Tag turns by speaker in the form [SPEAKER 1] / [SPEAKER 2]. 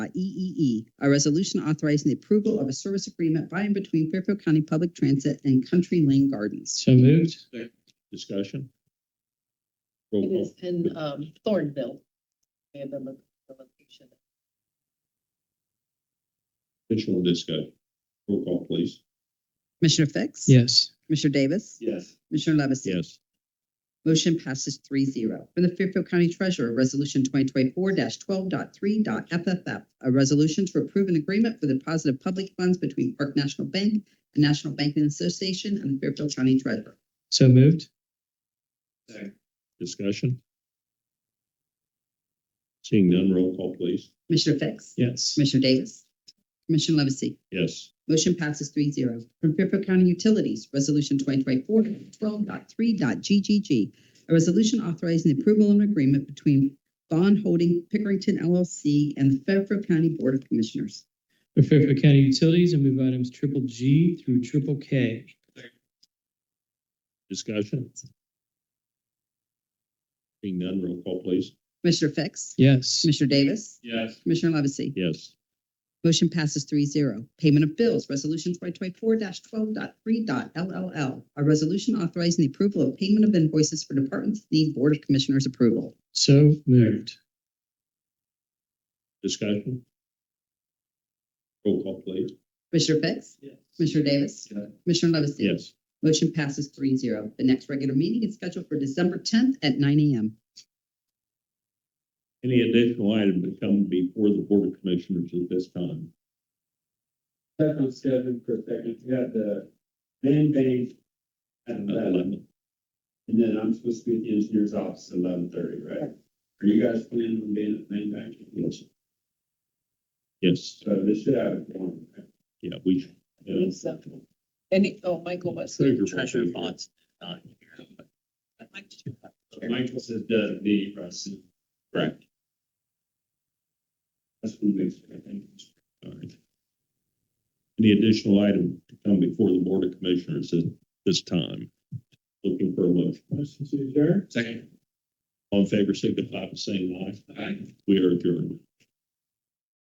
[SPEAKER 1] EEE, E a resolution authorizing the approval of a service agreement by and between Fairfield County Public Transit and Country Lane Gardens.
[SPEAKER 2] So moved.
[SPEAKER 3] Discussion? Roll
[SPEAKER 4] It is
[SPEAKER 3] call.
[SPEAKER 4] in um Thornville. We have the lo- the location.
[SPEAKER 3] Additional discussion? Roll call, please.
[SPEAKER 1] Commissioner Fix?
[SPEAKER 2] Yes.
[SPEAKER 1] Commissioner Davis?
[SPEAKER 3] Yes.
[SPEAKER 1] Commissioner Levesey?
[SPEAKER 3] Yes.
[SPEAKER 1] Motion passes three zero. From the Fairfield County Treasurer, Resolution twenty twenty-four 123fff a resolution to approve an agreement for the deposit of public funds between Park National Bank, the National Banking Association, and the Fairfield County Treasurer.
[SPEAKER 2] So moved.
[SPEAKER 3] Discussion? Seeing none, roll call, please.
[SPEAKER 1] Commissioner Fix?
[SPEAKER 2] Yes.
[SPEAKER 1] Commissioner Davis? Commissioner Levesey?
[SPEAKER 3] Yes.
[SPEAKER 1] Motion passes three zero. From Fairfield County Utilities, Resolution twenty twenty-four twelve dot three dot G G G. A resolution authorizing the approval of an agreement between Bond Holding Pickerington LLC and the Fairfield County Board of Commissioners.
[SPEAKER 2] For Fairfield County Utilities, I move items triple G through triple K.
[SPEAKER 3] Discussion? Seeing none, roll call, please.
[SPEAKER 1] Commissioner Fix?
[SPEAKER 2] Yes.
[SPEAKER 1] Commissioner Davis?
[SPEAKER 3] Yes.
[SPEAKER 1] Commissioner Levesey?
[SPEAKER 3] Yes.
[SPEAKER 1] Motion passes three zero. Payment of bills, Resolution twenty twenty-four 123ll A resolution authorizing the approval of payment of invoices for departments that need Board of Commissioners approval.
[SPEAKER 2] So moved.
[SPEAKER 3] Discussion? Roll call, please.
[SPEAKER 1] Commissioner Fix? Commissioner Davis? Commissioner Levesey?
[SPEAKER 3] Yes.
[SPEAKER 1] Motion passes three zero. The next regular meeting is scheduled for December tenth at nine AM.
[SPEAKER 3] Any additional item to come before the Board of Commissioners at this time?
[SPEAKER 5] That's on schedule for a second. We had the band bank at eleven,
[SPEAKER 3] Eleven.
[SPEAKER 5] and then I'm supposed to be at the engineer's office at eleven thirty, right? Are you guys planning on being at the main bank?
[SPEAKER 3] Yes. Yes,
[SPEAKER 5] So this should have one.
[SPEAKER 3] yeah, we.
[SPEAKER 4] I think so. And, it- oh, Michael was.
[SPEAKER 3] Treasure bonds. Uh,
[SPEAKER 5] Michael says
[SPEAKER 3] uh,
[SPEAKER 5] the, the,
[SPEAKER 3] Correct.
[SPEAKER 5] that's what makes it, I think.
[SPEAKER 3] All right. Any additional item to come before the Board of Commissioners at this time? Looking for a motion.
[SPEAKER 5] Motion to adjourn?
[SPEAKER 3] Second. All in favor, signify by saying aye. Aye. We are adjourned.